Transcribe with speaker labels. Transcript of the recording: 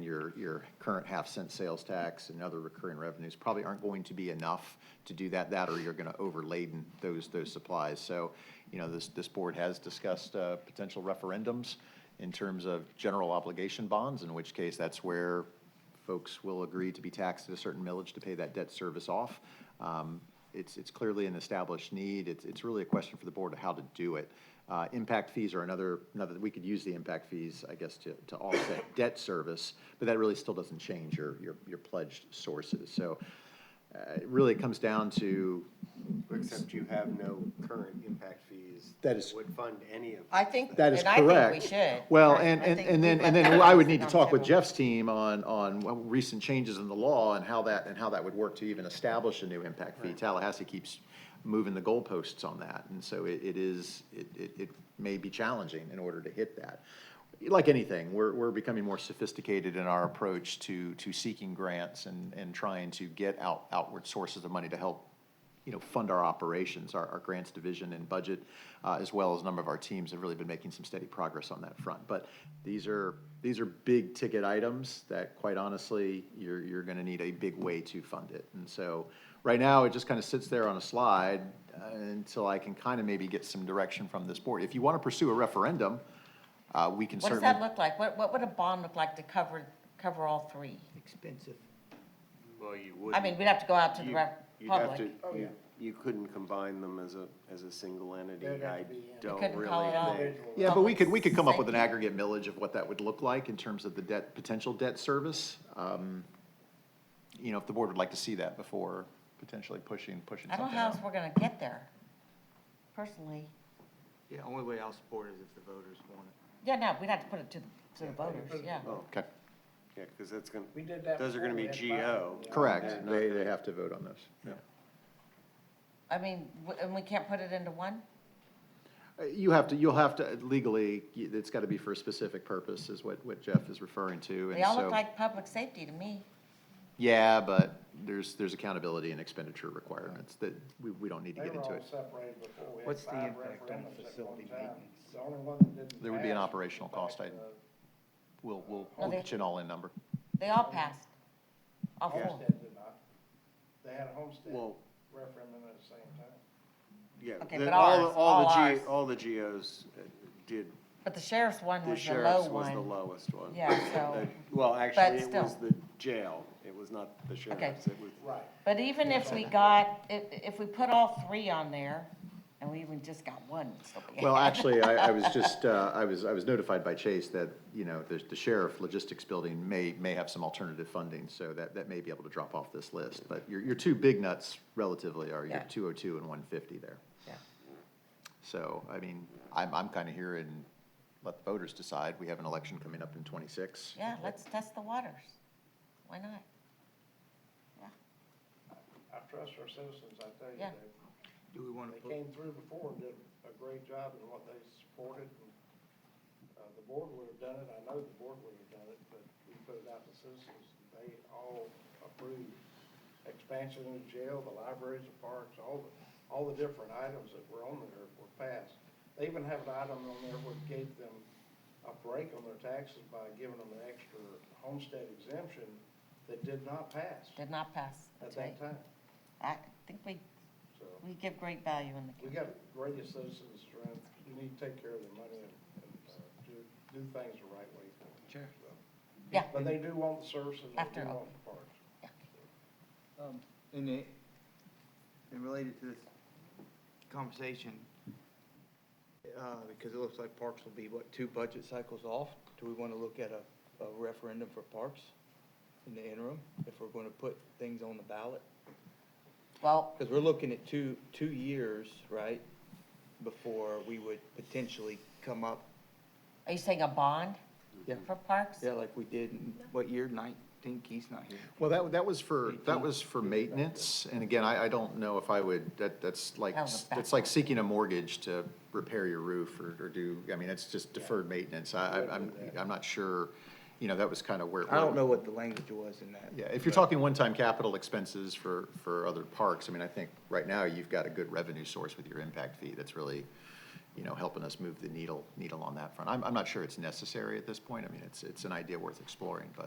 Speaker 1: your, your current half cent sales tax and other recurring revenues probably aren't going to be enough to do that, that, or you're gonna overladen those, those supplies. So, you know, this, this board has discussed, uh, potential referendums in terms of general obligation bonds, in which case that's where folks will agree to be taxed at a certain millage to pay that debt service off. Um, It's, it's clearly an established need. It's, it's really a question for the board of how to do it. Uh, Impact fees are another, another, we could use the impact fees, I guess, to, to offset debt service, but that really still doesn't change your, your, your pledged sources. So uh, it really comes down to,
Speaker 2: Except you have no current impact fees.
Speaker 1: That is-
Speaker 2: Would fund any of.
Speaker 3: I think,
Speaker 1: That
Speaker 3: and
Speaker 1: is
Speaker 3: I think we
Speaker 1: correct.
Speaker 3: should.
Speaker 1: Well,
Speaker 3: Right,
Speaker 1: and,
Speaker 3: I
Speaker 1: and,
Speaker 3: think
Speaker 1: and then,
Speaker 3: we've
Speaker 1: and
Speaker 3: got
Speaker 1: then
Speaker 3: that
Speaker 1: I would
Speaker 3: on
Speaker 1: need to
Speaker 3: the
Speaker 1: talk with
Speaker 3: table.
Speaker 1: Jeff's team on, on what recent changes in the law and how that, and how that would work to even establish a new impact fee. Tallahassee keeps moving the goalposts on that, and so it, it is, it, it, it may be challenging in order to hit that. Like anything, we're, we're becoming more sophisticated in our approach to, to seeking grants and, and trying to get out, outward sources of money to help you know, fund our operations, our, our grants division and budget, uh, as well as a number of our teams have really been making some steady progress on that front. But these are, these are big ticket items that quite honestly, you're, you're gonna need a big way to fund it. And so, right now, it just kind of sits there on a slide uh, until I can kind of maybe get some direction from this board. If you want to pursue a referendum, uh, we can
Speaker 3: What
Speaker 1: certainly.
Speaker 3: does that look like? What, what would a bond look like to cover, cover all three?
Speaker 4: expensive.
Speaker 2: Well, you would.
Speaker 3: I mean, we'd have to go out to the
Speaker 2: you-
Speaker 3: rep-
Speaker 2: you'd have
Speaker 3: public.
Speaker 2: to-
Speaker 4: Oh,
Speaker 2: you- You couldn't combine them as a, as a single entity.
Speaker 4: There'd have
Speaker 2: I
Speaker 4: to be, yeah. You
Speaker 2: don't
Speaker 3: couldn't
Speaker 2: really
Speaker 3: call it all.
Speaker 2: think.
Speaker 1: Yeah, but we could, we could come up with an
Speaker 3: Thank
Speaker 1: aggregate millage of what that would look like in terms of the debt, potential debt service. Um, You know, if the board would like to see that before potentially pushing, pushing
Speaker 3: I don't
Speaker 1: something
Speaker 3: know how else
Speaker 1: out.
Speaker 3: we're gonna get there, personally.
Speaker 5: Yeah, only way I'll support it is if the voters want it.
Speaker 3: Yeah, no, we'd have to put it to, the- to the voters, yeah.
Speaker 1: Okay,
Speaker 2: Oh, Yeah, because that's gonna,
Speaker 4: We did that.
Speaker 2: those are gonna be
Speaker 4: before, we had five.
Speaker 2: GO.
Speaker 1: correct. They, they have to vote on those.
Speaker 3: I mean, w- and we can't put it into one?
Speaker 1: Uh, You have to, you'll have to legally, y- it's got to be for a specific purpose is what, what Jeff is referring to.
Speaker 3: They
Speaker 1: and
Speaker 3: all look
Speaker 1: so-
Speaker 3: like public safety to me.
Speaker 1: Yeah, but there's, there's accountability and expenditure requirements that we, we don't need to
Speaker 6: They
Speaker 1: get
Speaker 6: were
Speaker 1: into
Speaker 6: all
Speaker 1: it.
Speaker 6: separated before. We had
Speaker 4: What's the
Speaker 6: five
Speaker 4: impact on
Speaker 6: referendums at
Speaker 4: facility
Speaker 6: one time.
Speaker 4: maintenance?
Speaker 6: The only one that didn't
Speaker 1: There would be an
Speaker 6: pass was
Speaker 1: operational
Speaker 6: back
Speaker 1: cost, I-
Speaker 6: to
Speaker 1: We'll, we'll,
Speaker 3: Well,
Speaker 1: we'll
Speaker 3: they-
Speaker 1: get you an all-in number.
Speaker 3: They all passed. All
Speaker 6: the
Speaker 3: four.
Speaker 6: Homestead did not. They had a homestead
Speaker 2: Well-
Speaker 6: referendum at the same time.
Speaker 2: Yeah.
Speaker 3: Okay,
Speaker 2: the-
Speaker 3: but
Speaker 2: all-
Speaker 3: ours,
Speaker 2: all the
Speaker 3: all
Speaker 2: G-
Speaker 3: ours.
Speaker 2: All the GOs uh, did,
Speaker 3: But the sheriff's one
Speaker 2: the
Speaker 3: was the low
Speaker 2: sheriff's was the
Speaker 3: one.
Speaker 2: lowest one.
Speaker 3: Yeah, so,
Speaker 2: Uh, Well, actually, it
Speaker 3: still.
Speaker 2: was the jail. It was not the sheriff's. It was,
Speaker 6: Right.
Speaker 3: but even if we got, if, if we put all three on there, and we even just got one, so be it.
Speaker 1: Well, actually, I, I was just, uh, I was, I was notified by Chase that, you know, the the sheriff logistics building may, may have some alternative funding, so that, that may be able to drop off this list. But your, your two big nuts relatively are your
Speaker 3: Yeah.
Speaker 1: two oh two and one fifty there.
Speaker 3: Yeah.
Speaker 1: So, I mean, I'm, I'm kinda here and let the voters decide. We have an election coming up in twenty-six.
Speaker 3: Yeah, let's test the waters. Why not?
Speaker 6: I trust our citizens, I tell you,
Speaker 3: Yeah.
Speaker 6: they,
Speaker 5: Do we want to
Speaker 6: they
Speaker 5: put,
Speaker 6: came through before and did a great job in what they supported. and, Uh, the board would have done it, I know the board would have done it, but we put it out to citizens, they all approved. Expansion of the jail, the libraries, the parks, all the, all the different items that were on there were passed. They even have an item on there where it gave them a break on their taxes by giving them an extra homestead exemption that did not pass
Speaker 3: Did not pass.
Speaker 6: at
Speaker 3: That's right. Mm-hmm.
Speaker 6: that time,
Speaker 3: I think we,
Speaker 6: so.
Speaker 3: we give great value in the
Speaker 6: We
Speaker 3: community.
Speaker 6: got great citizens around, you need to take care of their money and, and, uh, do, do things the right way for them.
Speaker 4: Sure.
Speaker 6: So.
Speaker 3: Yeah.
Speaker 6: But they do want the services, they
Speaker 3: After
Speaker 6: do
Speaker 3: all.
Speaker 6: want the parks.
Speaker 5: um, and it, and related to this conversation, uh, because it looks like parks will be, what, two budget cycles off? Do we want to look at a, a referendum for parks in the interim, if we're going to put things on the ballot?
Speaker 3: Well,
Speaker 5: Because we're looking at two, two years, right, before we would potentially come up,
Speaker 3: are you saying a bond
Speaker 5: yeah,
Speaker 3: for parks?
Speaker 5: yeah, like we did in, what year, nineteen, Keith's not here.
Speaker 1: Well, that, that was for, that was for maintenance, and again, I, I don't know if I would, that, that's like,
Speaker 3: That was a
Speaker 1: that's like seeking a mortgage to repair your roof or, or do, I mean, it's just deferred maintenance, I, I- I'm, I'm not sure, you know, that was kind of where.
Speaker 5: I don't know what the language was in that.
Speaker 1: Yeah, if you're
Speaker 5: but-
Speaker 1: talking one-time capital expenses for, for other parks, I mean, I think right now you've got a good revenue source with your impact fee that's really, you know, helping us move the needle, needle on that front. I'm, I'm not sure it's necessary at this point, I mean, it's, it's an idea worth exploring, but